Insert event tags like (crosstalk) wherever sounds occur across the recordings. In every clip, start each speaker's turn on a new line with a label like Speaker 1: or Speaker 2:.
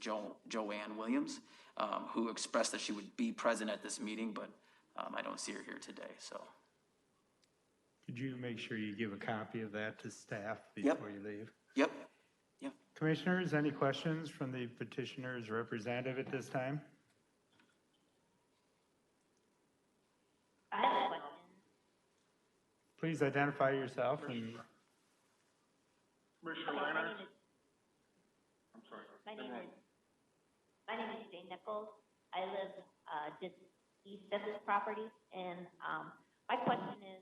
Speaker 1: Jo- Joanne Williams, um, who expressed that she would be present at this meeting, but um, I don't see her here today, so.
Speaker 2: Could you make sure you give a copy of that to staff
Speaker 1: Yep.
Speaker 2: before you leave?
Speaker 1: Yep, yep.
Speaker 2: Commissioners, any questions from the petitioner's representative at this time?
Speaker 3: I have a question.
Speaker 2: Please identify yourself and,
Speaker 4: Commissioner
Speaker 3: My
Speaker 4: Lanner,
Speaker 3: name is,
Speaker 4: I'm sorry.
Speaker 3: my name is, my name is Jane Nichols. I live, uh, just east of this property, and, um, my question is,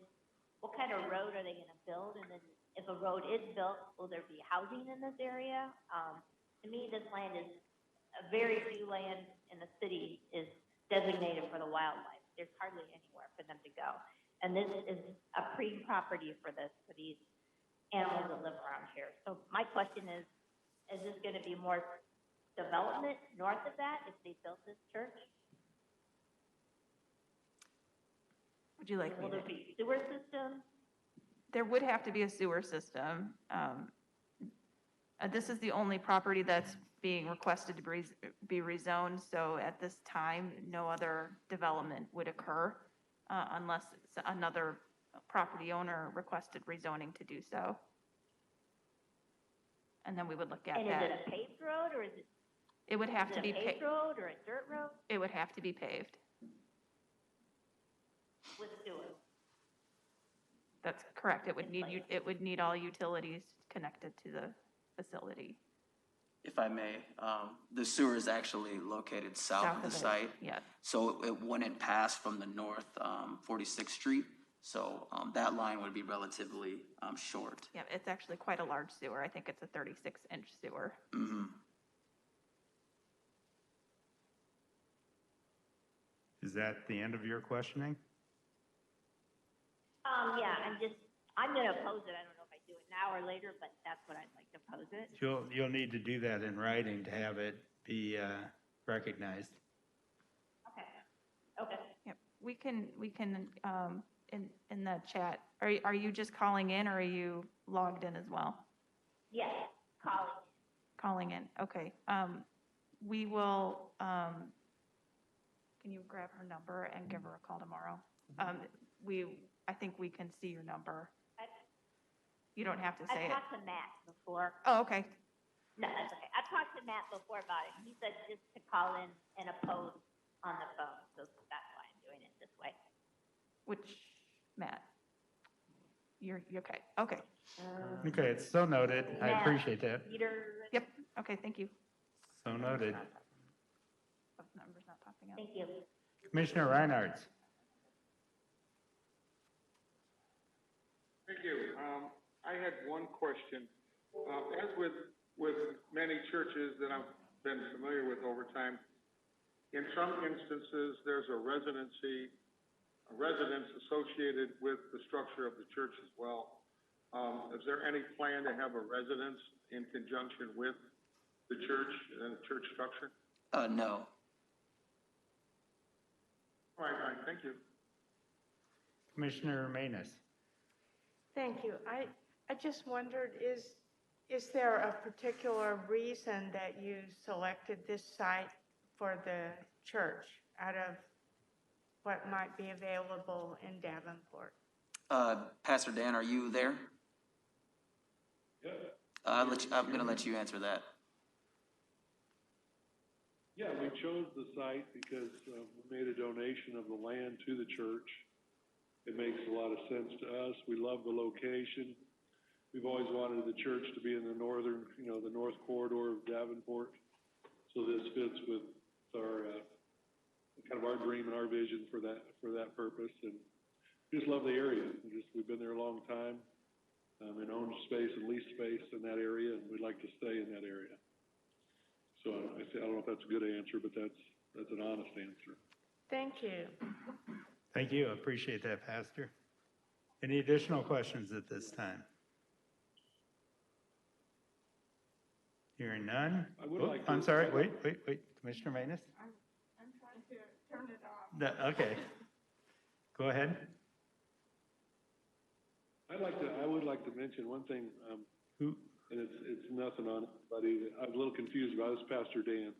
Speaker 3: what kind of road are they gonna build? And then if a road is built, will there be housing in this area? Um, to me, this land is, a very few land in the city is designated for the wildlife. There's hardly anywhere for them to go. And this is a prime property for this, for these animals that live around here. So my question is, is this gonna be more development north of that if they built this church?
Speaker 5: Would you like me
Speaker 3: Will
Speaker 5: to?
Speaker 3: there be sewer system?
Speaker 5: There would have to be a sewer system. um, uh, This is the only property that's being requested to be be rezoned, so at this time, no other development would occur uh, unless it's another property owner requested rezoning to do so. And then we would look at
Speaker 3: And is it
Speaker 5: that.
Speaker 3: a paved road or is it,
Speaker 5: It would have
Speaker 3: is
Speaker 5: to
Speaker 3: it a
Speaker 5: be,
Speaker 3: paved
Speaker 5: pa-
Speaker 3: road or a dirt road
Speaker 5: it would have to be paved.
Speaker 3: with sewer?
Speaker 5: That's correct. It would
Speaker 3: It's
Speaker 5: need,
Speaker 3: like-
Speaker 5: you. it would need all utilities connected to the facility.
Speaker 1: If I may, um, the sewer is actually located south of the
Speaker 5: it.
Speaker 1: site,
Speaker 5: Yes.
Speaker 1: so it wouldn't pass from the north, um, 46th Street. So um, that line would be relatively um, short.
Speaker 5: Yeah, it's actually quite a large sewer. I think it's a thirty-six inch sewer.
Speaker 1: Mhm.
Speaker 2: is that the end of your questioning?
Speaker 3: Um, yeah, I'm just, I'm gonna oppose it. I don't know if I do it now or later, but that's what I'd like to oppose it.
Speaker 2: You'll, you'll need to do that in writing to have it be uh, recognized.
Speaker 3: Okay, okay.
Speaker 5: Yep, we can, we can, um, in, in the chat, are, y- are you just calling in or are you logged in as well?
Speaker 3: Yes, calling.
Speaker 5: Calling in, okay. Um, we will, um, can you grab her number and give her a call tomorrow? Um, we, I think we can see your number.
Speaker 3: Mm-hmm. I-
Speaker 5: You don't have to say
Speaker 3: I've
Speaker 5: it.
Speaker 3: talked to Matt before.
Speaker 5: Oh, okay,
Speaker 3: No, that's okay. I've talked to Matt before about it. He said just to call in and oppose on the phone, so that's why I'm doing it this way.
Speaker 5: which, Matt? You're, you're okay, okay,
Speaker 2: Okay, it's so noted. I
Speaker 3: Yeah.
Speaker 2: appreciate that.
Speaker 3: Peter,
Speaker 5: yep, okay, thank you.
Speaker 2: So noted.
Speaker 5: Oh, Number's not popping up.
Speaker 3: thank you.
Speaker 2: Commissioner Reinhardt,
Speaker 4: Thank you. Um, I had one question. Uh, as with, with many churches that I've been familiar with over time, in some instances, there's a residency, a residence associated with the structure of the church as well. Um, is there any plan to have a residence in conjunction with the church and the church structure?
Speaker 1: Uh, No,
Speaker 4: All right, all right, thank you.
Speaker 2: Commissioner Manus.
Speaker 6: Thank you. I, I just wondered, is, is there a particular reason that you selected this site for the church out of what might be available in Davenport?
Speaker 1: Uh, Pastor Dan, are you there? Uh, I'll let you- I'm going to let you answer that.
Speaker 7: Yeah, we chose the site because uh, we made a donation of the land to the church. It makes a lot of sense to us. We love the location. We've always wanted the church to be in the northern, you know, the north corridor of Davenport. So this fits with our, uh, kind of our dream and our vision for that, for that purpose. And just love the area. We Just, we've been there a long time, um, and owned space and leased space in that area, and we'd like to stay in that area. So I I don't know if that's a good answer, but that's, that's an honest answer.
Speaker 6: Thank you.
Speaker 2: Thank you. Appreciate that, Pastor. Any additional questions at this time? Hearing none?
Speaker 7: I would
Speaker 2: Oh,
Speaker 7: like
Speaker 2: I'm
Speaker 7: to-
Speaker 2: sorry, wait, wait, wait, Commissioner Manus?
Speaker 8: I'm trying to turn it off.
Speaker 2: No,
Speaker 8: (laughs)
Speaker 2: Okay. Go ahead.
Speaker 7: I'd like to, I would like to mention one thing, um,
Speaker 2: Who,
Speaker 7: And it's, it's nothing on anybody. I'm a little confused about this, Pastor Dan.